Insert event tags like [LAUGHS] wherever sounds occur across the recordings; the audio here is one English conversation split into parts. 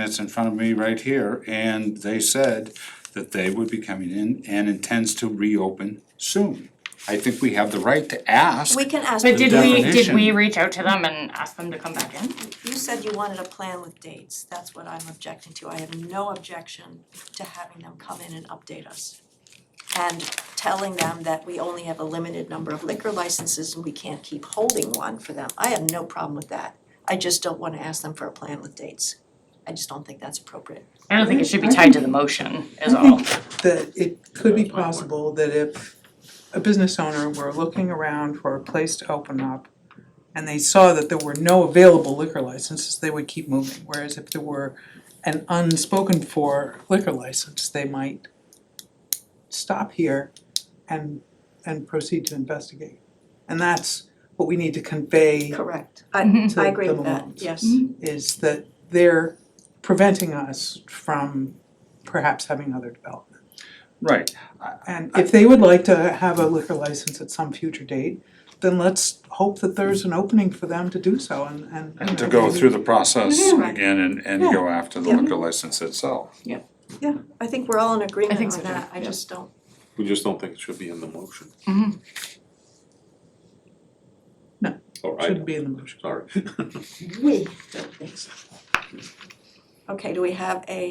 that's in front of me right here, and they said that they would be coming in and intends to reopen soon. I think we have the right to ask. We can ask, But did we, did definition. we reach out to them and ask them to come back in? you said you wanted a plan with dates, that's what I'm objecting to, I have no objection to having them come in and update us. And telling them that we only have a limited number of liquor licenses and we can't keep holding one for them, I have no problem with that. I just don't wanna ask them for a plan with dates, I just don't think that's appropriate. I don't think it should be tied to the motion is [LAUGHS] all. that it could be possible that if a business owner were looking around for a place to open up and they saw that there were no available liquor licenses, they would keep moving, whereas if there were an unspoken for liquor license, they might stop here and and proceed to investigate. And that's what we need to convey Correct. Mhm. I To I agree the with that, moment. yes. Mm-hmm. is that they're preventing us from perhaps having other development. Right, And if they would like to have a liquor license at some future date, then let's hope that there's an opening for them to do so and and. you and to know, go maybe- through the process Mhm. again and, and go after the Yeah. liquor license itself. Yeah, I think we're all in agreement think so, on that, too. I Yeah. just don't, We just don't think it should be in the motion. No, Or I Shouldn't don't, be in the motion. sorry. [LAUGHS] we don't think so. Okay, do we have a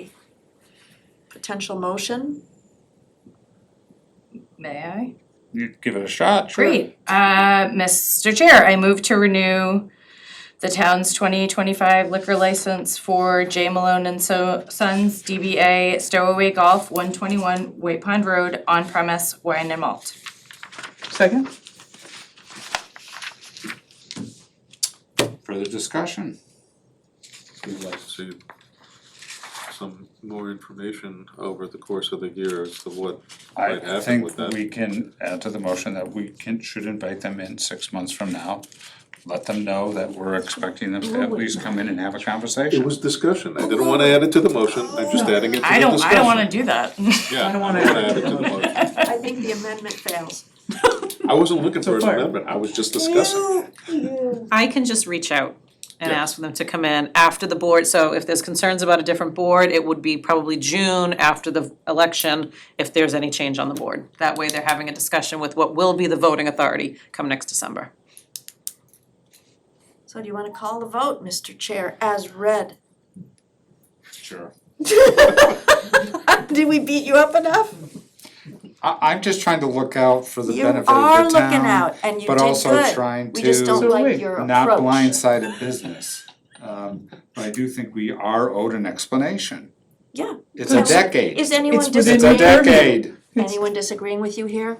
potential motion? May I? You give it a shot, sure. Great. Uh, Mr. Chair, I move to renew the town's twenty twenty-five liquor license for J Malone and So Sons DBA Stowaway Golf, one twenty-one White Pond Road, on premise wine and malt. Second, Further discussion? We'd like to see some more information over the course of the year as to what I might I happen with think that. we can add to the motion that we can, should invite them in six months from now. Let them know that we're expecting them to at least come in and have a It conversation. was discussion, I didn't wanna add it to the motion, I'm just adding it to the discussion. I don't, I don't wanna do that. Yeah, I I don't don't wanna wanna add it add to it to the the motion. I think the amendment fails. I wasn't looking for an far. amendment, I was just discussing. I can just reach out and Yeah. ask them to come in after the board, so if there's concerns about a different board, it would be probably June after the election, if there's any change on the board. That way they're having a discussion with what will be the voting authority come next December. So do you wanna call the vote, Mr. Chair, as read? Sure. [LAUGHS] Did we beat you up enough? I, I'm just trying to look out for the You benefit of the are town. looking out and you but did also good. trying We just to- don't So like wait, your approach. Not blindsided business. Um, but I do think we are owed an explanation. Yeah. It's a Yes. decade. Is anyone It's within It's a your disagreeing? decade. Anyone disagreeing with you here?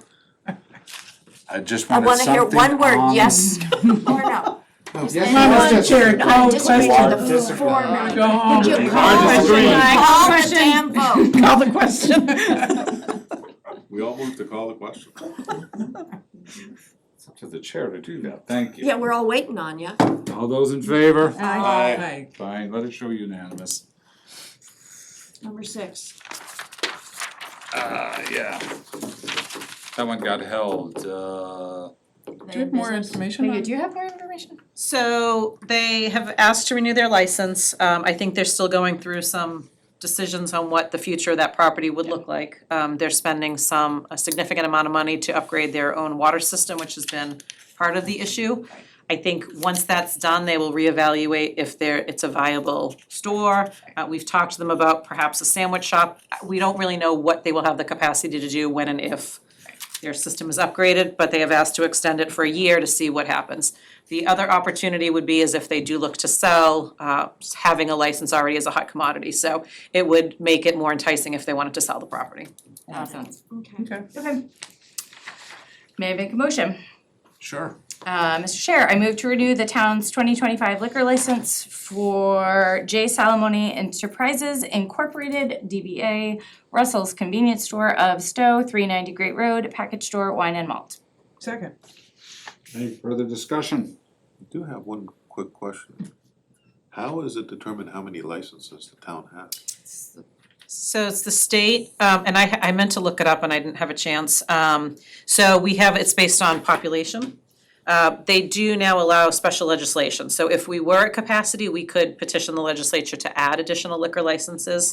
I just I wanted wanna something hear one word, on- Oh, yes [LAUGHS] [LAUGHS] or no. No, yes, no, anyone- it's Madam Chair, just- call I'm disagreeing Why with the disagree? format. go home. Would you Why call, disagree? call the damn vote? Call the question. [LAUGHS] We all moved to call the question. It's up To the chair to do that, thank you. Yeah, we're all waiting on you. All those in favor? Uh, Aye. Aye. Fine, let it show unanimous. Number six. Uh, yeah. That one got held, uh. Do you have more information on? you have more information? So they have asked to renew their license. Um, I think they're still going through some decisions on what the future of that property would look like. Um, they're spending some, a significant amount of money to upgrade their own water system, which has been part of the issue. I think once that's done, they will reevaluate if there, it's a viable store. Uh, we've talked to them about perhaps a sandwich shop. We don't really know what they will have the capacity to do when and if their system is upgraded, but they have asked to extend it for a year to see what happens. The other opportunity would be is if they do look to sell, uh, having a license already is a hot commodity, so it would make it more enticing if they wanted to sell the property. sense. Okay. Okay. May I make a motion? Sure. Uh, Mr. Chair, I move to renew the town's twenty twenty-five liquor license for J Salamone Enterprises Incorporated, DBA Russell's Convenience Store of Stowe, three ninety Great Road, Package Store Wine and Malt. Second, Any further discussion? I do have one quick question. How is it determined how many licenses the town has? So it's the state, um, and I, I meant to look it up and I didn't have a chance. Um, so we have, it's based on population. Uh, they do now allow special legislation, so if we were at capacity, we could petition the legislature to add additional liquor licenses.